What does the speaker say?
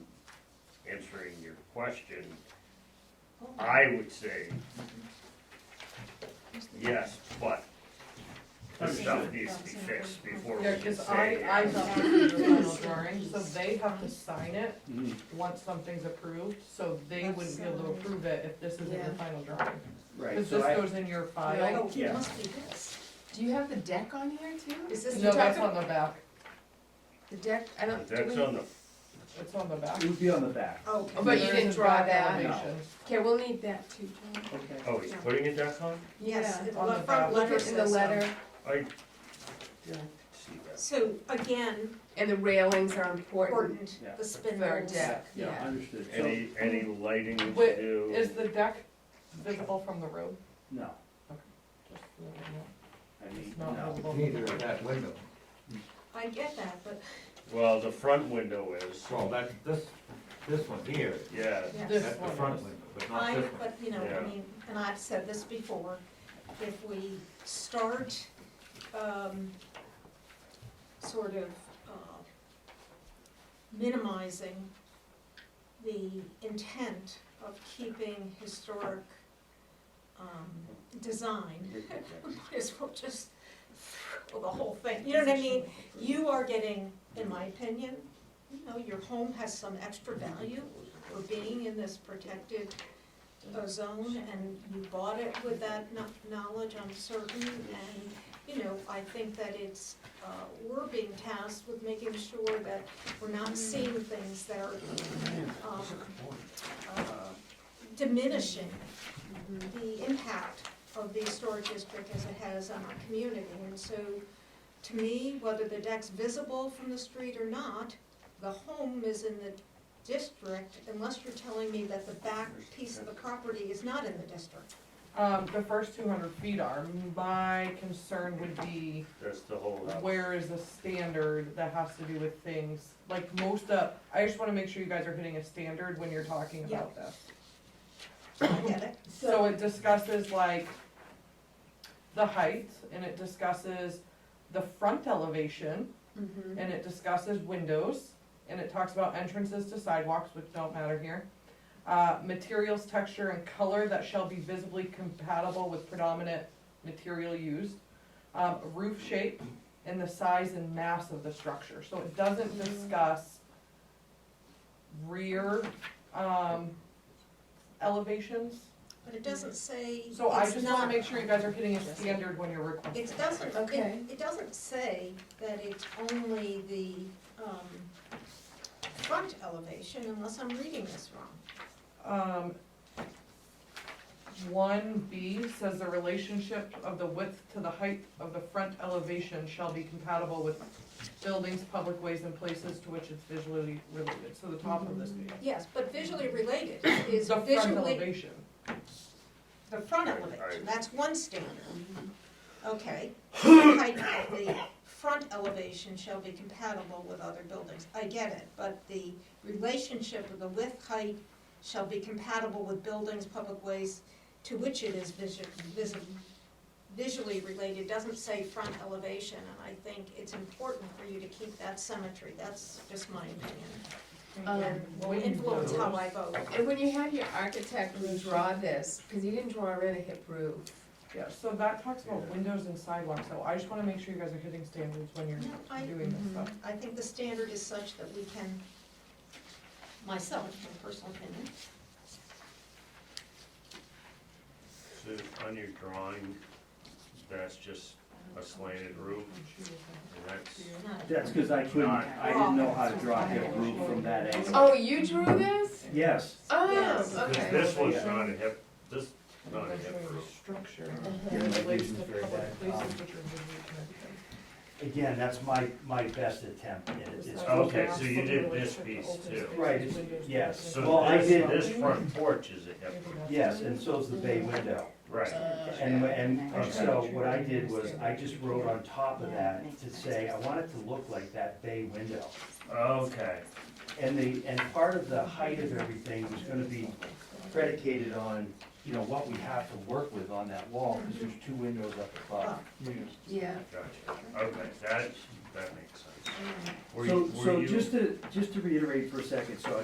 question, I would say yes, but this stuff needs to be fixed before we Yeah, can cause I, say. I got the final drawing, so they have to sign it Mm-hmm. once something's approved, so they That's wouldn't be able to so- approve it if this isn't the Yeah. final drawing. Right, Cause so this I, goes in your Oh, file, it Yeah. must be this. Do you have the deck on here too? Is this no, the that's type of, on the back, The deck, I don't, do That's we, on the, it's on the back. it would be on the back. okay. But you There didn't is a draw back that. elevation. okay, we'll need that too, John. Okay. oh, he's putting a deck on? Yes, Yeah, it- on the the front back. letter In the says so. letter, I didn't see that. So again, and the railings are important. important, Yeah. the Their spindles. deck, Yeah, yeah. understood, so, Any, any lighting to um, Wait, do? Is the deck visible from the road? no, Just so that we know. I mean, It's not no, visible. Neither of that window. I get that, but Well, the front window is, Well, that's this, this one here, yeah, yes, This that's the one front is. window, but not I, this one. but you know, Yeah. I mean, and I've said this before, if we start, um, sort of, uh, minimizing the intent of keeping historic, um, design, might as well just throw the whole thing, you know what I mean? You are getting, in my opinion, you know, your home has some extra value for being in this protected uh, zone, and you bought it with that kno- knowledge, I'm certain, and, you know, I think that it's, uh, we're being tasked with making sure that we're not seeing things that are, um, uh, diminishing the impact of the historic district as it has on our community. And so, to me, whether the deck's visible from the street or not, the home is in the district unless you're telling me that the back piece of the property is not in the district. Um, the first two hundred feet are, my concern would be that's the whole house. where is the standard that has to do with things, like most of, I just wanna make sure you guys are hitting a standard when you're talking Yeah. about this. I get it. So it discusses like the height, and it discusses the front elevation, Mhm. and it discusses windows, and it talks about entrances to sidewalks, which don't matter here. Uh, materials, texture, and color that shall be visibly compatible with predominant material used. Um, roof shape and the size and mass of the structure, so it doesn't discuss rear, um, elevations. But it doesn't say it's So I just wanna not- make sure you guys are hitting a standard when you're requesting. It doesn't, Okay. it, it doesn't say that it's only the, um, front elevation unless I'm reading this wrong. Um, one B says the relationship of the width to the height of the front elevation shall be compatible with buildings, public ways, and places to which it's visually related, so the top of this page. Yes, but visually related is The front visually, elevation, the front Right, elevation, right. that's one standard. Okay, the height of the front elevation shall be compatible with other buildings, I get it, but the relationship of the width height shall be compatible with buildings, public ways to which it is visu- visi- visually related, doesn't say front elevation, and I think it's important for you to keep that symmetry, that's just my opinion. Um, And will influence how I vote. And when you had your architect redraw this, because you didn't draw in a hip roof, yeah, so that talks about Yeah. windows and sidewalks, so I just wanna make sure you guys are hitting standards when you're No, I- Mm-hmm. doing this stuff. I think the standard is such that we can, myself, my personal opinion, So on your drawing, that's just a slanted roof, and that's, not that's because I couldn't, I didn't know how to draw hip roof from that angle. Oh, you drew this? Yes, Yes. Oh, 'cause okay. this one's not a hip, this, not a hip Measuring roof. Structure. Yeah, Relates my vision's to very public bad. places Um, which are visually connected. Again, that's my, my best attempt at it. It's- Okay, so you did this piece too. Right, yes. So Well, I this, did- this front porch is a hip roof, Yes, and so's the bay window. right. Uh, And, and so what I did was, I just wrote on top of that to say, I want it to look like that bay window. Okay, And the, and part of the height of everything was gonna be predicated on, you know, what we have to work with on that wall, because there's two windows up above. Yeah. gotcha, okay, that, that makes sense. Were you- so, were so you- just to, just to reiterate for a second, so